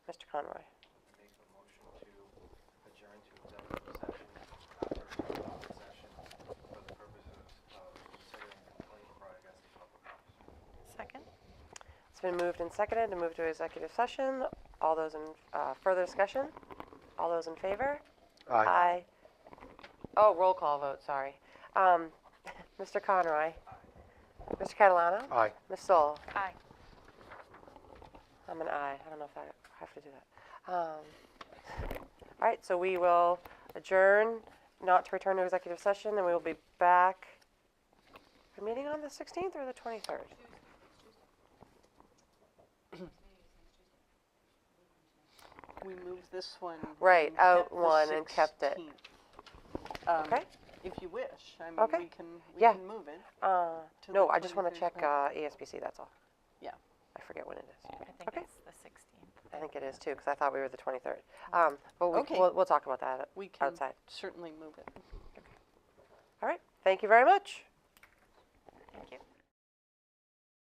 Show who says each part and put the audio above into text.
Speaker 1: Mr. Conroy.
Speaker 2: Make a motion to adjourn to executive session after public session for the purposes of considering complaint brought against the public officer.
Speaker 1: Second. It's been moved and seconded to move to executive session. All those in, uh, further discussion? All those in favor? Aye. Oh, roll call vote, sorry. Um, Mr. Conroy. Mr. Catalano.
Speaker 2: Aye.
Speaker 1: Ms. Soul.
Speaker 3: Aye.
Speaker 1: I'm an aye. I don't know if I I have to do that. Um, all right, so we will adjourn, not to return to executive session, and we will be back. A meeting on the 16th or the 23rd?
Speaker 4: We moved this one.
Speaker 1: Right,
Speaker 4: and
Speaker 1: out
Speaker 4: kept the
Speaker 1: one and kept it.
Speaker 4: 16th. Um,
Speaker 1: Okay.
Speaker 4: If you wish, I mean,
Speaker 1: Okay.
Speaker 4: we can, we
Speaker 1: Yeah.
Speaker 4: can move it.
Speaker 1: Uh,
Speaker 4: To
Speaker 1: no,
Speaker 4: the
Speaker 1: I just want to
Speaker 4: 23rd,
Speaker 1: check uh, ESBC, that's all.
Speaker 4: Yeah.
Speaker 1: I forget when it is.
Speaker 3: I think
Speaker 1: Okay.
Speaker 3: it's the 16th.
Speaker 1: I think it is too, because I thought we were the 23rd. Um, but we,
Speaker 4: Mm. Okay.
Speaker 1: we'll, we'll talk about that.
Speaker 4: We can
Speaker 1: Outside.
Speaker 4: certainly move it.
Speaker 1: All right, thank you very much.
Speaker 3: Thank you.